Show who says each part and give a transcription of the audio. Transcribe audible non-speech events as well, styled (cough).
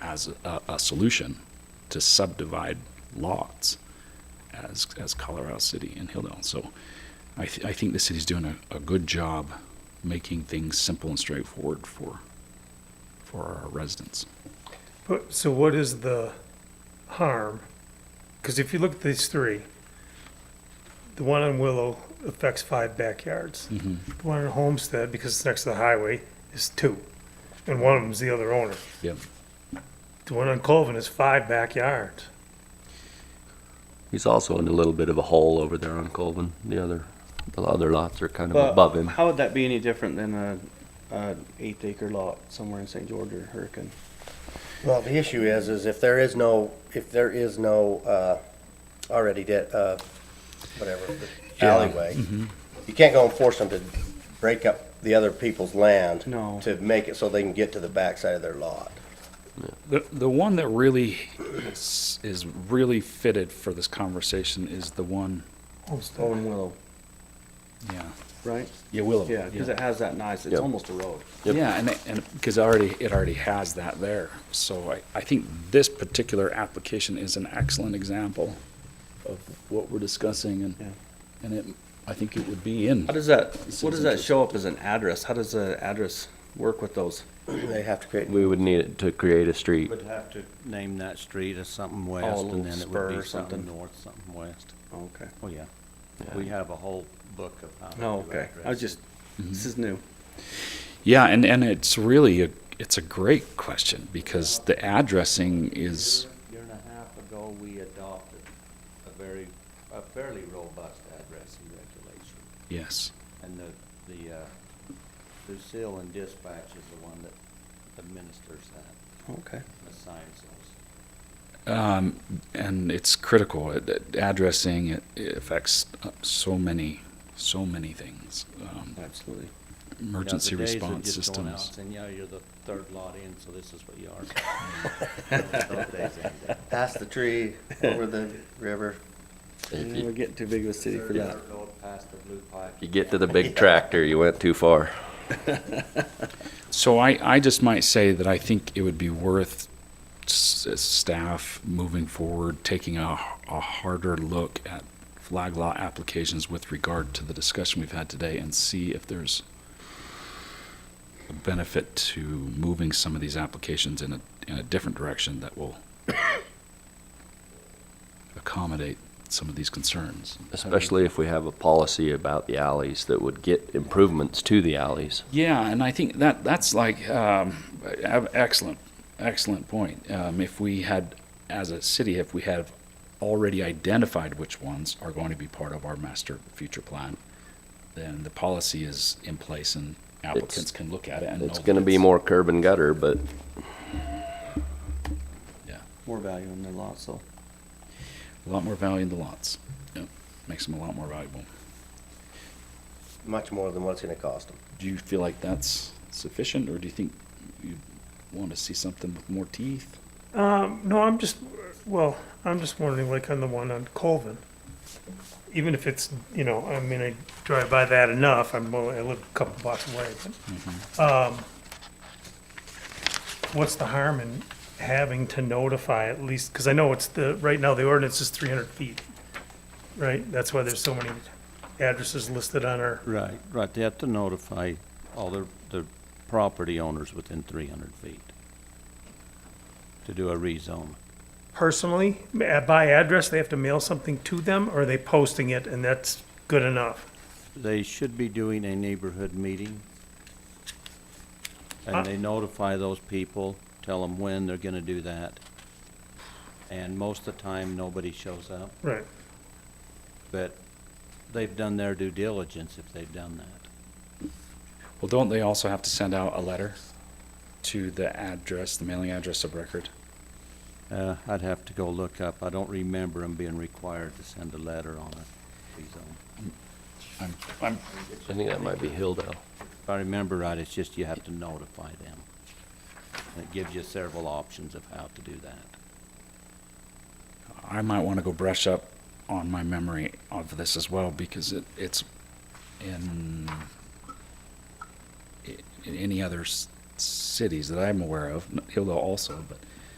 Speaker 1: as a, a solution to subdivide lots as, as Colorado City and Hilldale. So I, th- I think the city's doing a, a good job making things simple and straightforward for, for our residents.
Speaker 2: But, so what is the harm? Because if you look at these three, the one on Willow affects five backyards. The one on Homestead, because it's next to the highway, is two. And one of them's the other owner.
Speaker 1: Yep.
Speaker 2: The one on Colvin is five backyards.
Speaker 3: He's also in a little bit of a hole over there on Colvin. The other, the other lots are kind of
Speaker 4: But
Speaker 3: above him.
Speaker 4: How would that be any different than a, a eighth acre lot somewhere in St. George or Hurricane?
Speaker 5: Well, the issue is, is if there is no, if there is no, uh, already did, uh, whatever, alleyway, you can't go and force them to break up the other people's land.
Speaker 4: No.
Speaker 5: To make it so they can get to the backside of their lot. (clears throat)
Speaker 1: The, the one that really is, is really fitted for this conversation is the one,
Speaker 2: Homestead.
Speaker 4: Owen Willow,
Speaker 1: yeah.
Speaker 4: right?
Speaker 1: Yeah, Willow.
Speaker 4: Yeah, because it has that nice, it's
Speaker 3: Yep.
Speaker 4: almost a road.
Speaker 3: Yep.
Speaker 1: Yeah, and, and, because already, it already has that there. So I, I think this particular application is an excellent example of what we're discussing
Speaker 4: Yeah.
Speaker 1: and, and it, I think it would be in.
Speaker 4: How does that, what
Speaker 1: seems
Speaker 4: does that show up as an address? How does the address work with those?
Speaker 5: They have to create,
Speaker 3: We would need it to create a street.
Speaker 6: Would have to name that street as something west,
Speaker 4: Oh, little
Speaker 6: and then it
Speaker 4: spur
Speaker 6: would
Speaker 4: or
Speaker 6: be something
Speaker 4: something.
Speaker 6: north, something west.
Speaker 4: Okay.
Speaker 6: Oh, yeah.
Speaker 3: Yeah.
Speaker 6: We have a whole book of how to
Speaker 4: No,
Speaker 6: do
Speaker 4: okay. I was
Speaker 6: addresses.
Speaker 4: just, this is new.
Speaker 1: Yeah, and, and it's really, a it's a great question because the addressing is,
Speaker 6: Year and a half ago, we adopted a very, a fairly robust addressing regulation.
Speaker 1: yes,
Speaker 6: And the, the, uh, Lucille and Dispatch is the one that administers that,
Speaker 4: Okay.
Speaker 6: assigns those.
Speaker 1: um, and it's critical. It- it- Addressing, it it affects uh, so many, so many things. Um,
Speaker 4: Absolutely.
Speaker 6: You know,
Speaker 1: Emergency
Speaker 6: the days of
Speaker 1: response
Speaker 6: just going out
Speaker 1: systems.
Speaker 6: Saying, yeah, you're the third lot in, so this is what you are. (laughs) Those days ended.
Speaker 5: past the tree, over the river.
Speaker 3: If
Speaker 4: Yeah, We're
Speaker 3: you,
Speaker 4: getting too big of a city for
Speaker 6: Third
Speaker 4: that.
Speaker 6: yard road past the blue pipe.
Speaker 3: you get to the big tractor, you went too far.
Speaker 1: So I, I just might say that I think it would be worth s- staff moving forward, taking a, a harder look at flag law applications with regard to the discussion we've had today and see if there's a benefit to moving some of these applications in a, in a different direction that will (coughs) accommodate some of these concerns.
Speaker 3: Especially if we have a policy about the alleys that would get improvements to the alleys.
Speaker 1: Yeah, and I think that that's like um, a- excellent, excellent point. Um, if we had, as a city, if we have already identified which ones are going to be part of our master future plan, then the policy is in place and applicants
Speaker 3: It's-
Speaker 1: can look at it and know
Speaker 3: It's
Speaker 1: that
Speaker 3: gonna be more curb and gutter, but
Speaker 4: More value in their lot, so.
Speaker 1: a lot more value in the lots. Yep, makes them a lot more valuable.
Speaker 5: much more than what it's gonna cost them.
Speaker 1: Do you feel like that's sufficient, or do you think you want to see something with more teeth?
Speaker 2: Um, no, I'm just, well, I'm just wondering, like on the one on Colvin, even if it's, you know, I mean, I drive by that enough, I'm, well, I live a couple blocks away, but, um, what's the harm in having to notify at least, because I know it's the, right now, the ordinance is three hundred feet, right? That's why there's so many addresses listed on our,
Speaker 6: Right, right. They have to notify all the, the property owners within three hundred feet to do a rezone.
Speaker 2: personally, by address, they have to mail something to them, or are they posting it and that's good enough?
Speaker 6: They should be doing a neighborhood meeting.
Speaker 2: Uh.
Speaker 6: And they notify those people, tell them when they're gonna do that. And most of the time, nobody shows up,
Speaker 2: Right.
Speaker 6: but they've done their due diligence if they've done that.
Speaker 1: Well, don't they also have to send out a letter to the address, the mailing address of record?
Speaker 6: Uh, I'd have to go look up. I don't remember them being required to send a letter on a rezone.
Speaker 1: I'm, I'm,
Speaker 3: I think that might be Hilldale.
Speaker 6: If I remember right, it's just you have to notify them. And it gives you several options of how to do that.
Speaker 1: I might want to go brush up on my memory of this as well because it, it's in, i- in any other s- cities that I'm aware of, n- Hillville also, but